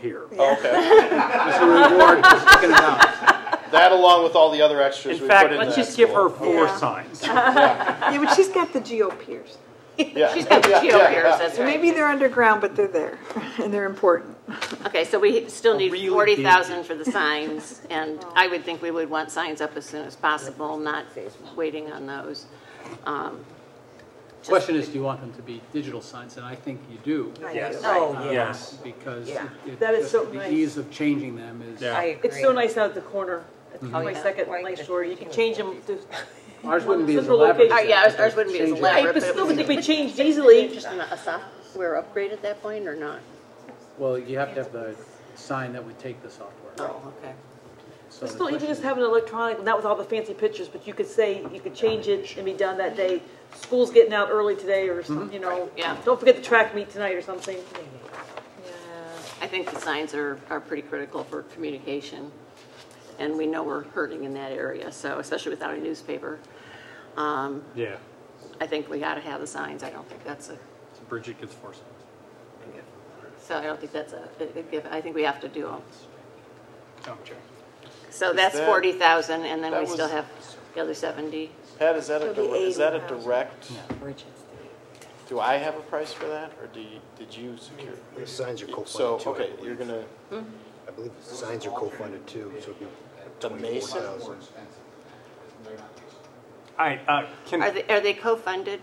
here. Okay. It's a reward for sticking it out. That along with all the other extras In we fact, put in let's that just give her envelope. four Yeah. signs. Yeah, but she's got the GOPers. Yeah. She's got the Yeah, GOPers, yeah, yeah. that's So right. maybe they're underground, but they're there, and they're important. Okay, so we still Really need big. forty thousand for the signs, and I would think we would want signs up as soon as possible, not waiting on those. Um, Question is, do you want them to be digital signs? And I think you do. Um, Yes. Oh, yeah. Yes. Because Yeah. it- That is just so the nice. ease of changing them is. Yeah. I I It's so nice out at the corner, at yeah. 22nd and Lake Shore, you can change them. to- Ours wouldn't be as Central elaborate. as location. Uh, yeah, that, but ours wouldn't be as change it. elaborate. I but still think we changed easily. Just a software upgrade at that point, or not? Well, you have to have the sign that would take the software. Oh, okay. So But the Still, you can question- just have an electronic, not with all the fancy pictures, but you could say, you could change it and be done that day. School's getting out early today or some, you know. yeah. Don't forget the track meet tonight or something. I think the signs are, are pretty critical for communication, and we know we're hurting in that area, so, especially without a newspaper. Um, Yeah, I think we gotta have the signs, I don't think that's a, so Bridget gets four signs. so I don't think that's a, a- a given. I think we have to do Oh, them. I'm sorry. So that's that- forty thousand, and then that we still was- have the other seventy. Pat, is that a, It'll be dir- is that a 80,000. direct? Do I have a price for that, or do you, did you secure? The signs are So, co-funded too, okay, I you're believe. gonna, I believe the signs are co-funded too, so it'd be The twenty-four Mason? thousand. All right, uh, can, Are they, are they co-funded,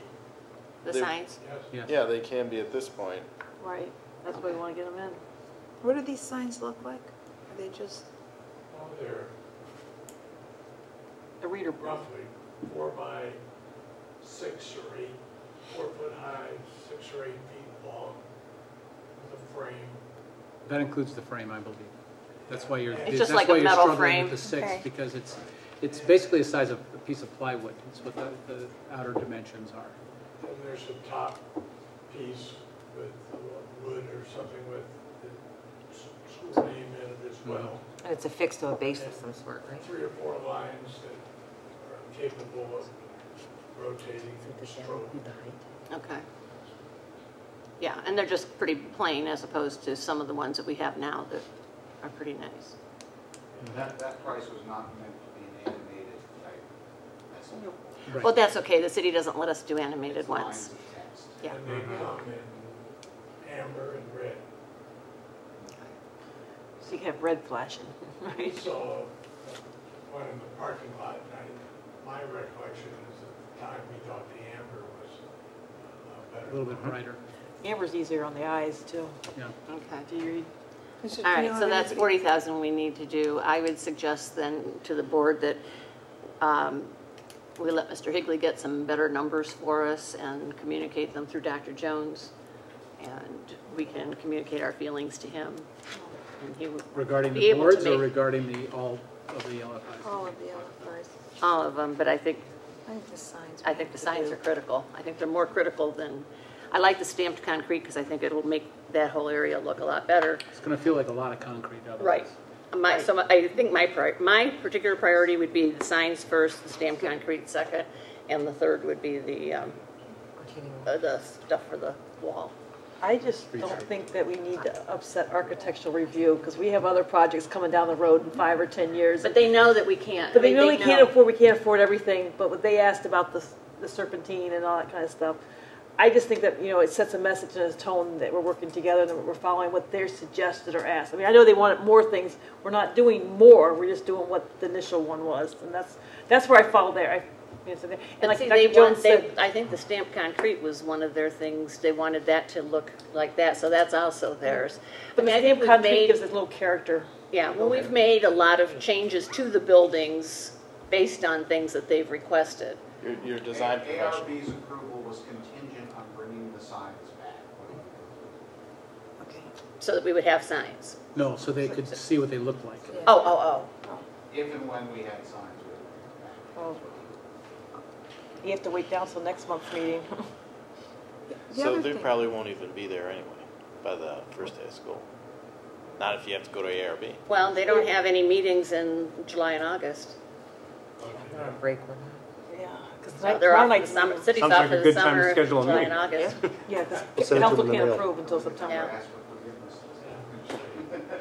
the They- signs? yeah, they can be at this point. Right, that's why we want to get them in. What do these signs look like? Are they just, Well, they're The reader book. roughly four by six or eight, four foot high, six or eight feet long, with a frame. That includes the frame, I believe. That's why you're, It's that's just why like a you're metal struggling frame. with the six, Okay. because it's, it's basically the size of a piece of plywood. It's what the, the outer dimensions are. And there's a top piece with uh, wood or something with the s- school name in it as well. And it's affixed to a base of some sort, right? Three or four lines that are capable of rotating and stroke. Okay. Yeah, and they're just pretty plain as opposed to some of the ones that we have now that are pretty nice. That, that price was not meant to be an animated type message. Right. Well, that's okay, the city doesn't let us do animated It's ones. lines of text. Yeah. And they Mm-hmm. come in amber and red. So you can have red flashing. We saw one in the parking lot, and I- my recollection is at the time we thought the amber was uh, better. A little Mm-hmm. bit brighter, Amber's easier on the eyes too. yeah. Okay. Do you read? is it- All do you right, know so if that's anybody- 40,000 we need to do. I would suggest then to the board that um, we let Mr. Higley get some better numbers for us and communicate them through Dr. Jones, and we can communicate our feelings to him. and he would Regarding be the able to boards or make Oh. regarding the, all of the LFIs? All of the LFRs. All of them, but I think, I think the signs. I think the signs are critical. I think they're more critical than, I like the stamped concrete because I think it'll make that whole area look a lot better. It's going to feel like a lot of concrete otherwise. Right. My, so my- I think my, pri- my particular priority would be the signs first, the stamped concrete second, and the third would be the, um, uh, the stuff for the wall. I just don't think that we need to upset architectural review because we have other projects coming down the road in five or 10 years. But they know that we can't. But I they mean, really can't know. afford, we can't afford everything, but what they asked about the, the serpentine and all that kind of stuff, I just think that, you know, it sets a message and a tone that we're working together and that we're following what they're suggested or asked. I mean, I know they wanted more things, we're not doing more, we're just doing what the initial one was, and that's, that's where I fall there. I- you know, so there- And But like see, they Dr. want, Jones they, said, I think the stamped concrete was one of their things. They wanted that to look like that, so that's also theirs. I the mean, I think stamp we've concrete made, gives it a little character. yeah, well, we've made a lot of changes to the buildings based on things that they've requested. Your, your design professional. ARB's approval was contingent on bringing the signs back. when we- Okay. so that we would have signs. No, so they could see what they look like. Oh, oh, If and when we had signs, we would bring them back. Oh. You have to wait down till next month's meeting. The So other they thing- probably won't even be there anyway by the first day of school. Not if you have to go to ARB. oh. Well, they don't have any meetings in July and August. Yeah, because So tonight, they're tomorrow off for the night's summer, city's Sounds like off a for the good time to summer, schedule a July and meeting. August. Yeah, We'll because send it to council them in the can't mail. approve until September. Yeah. Ask for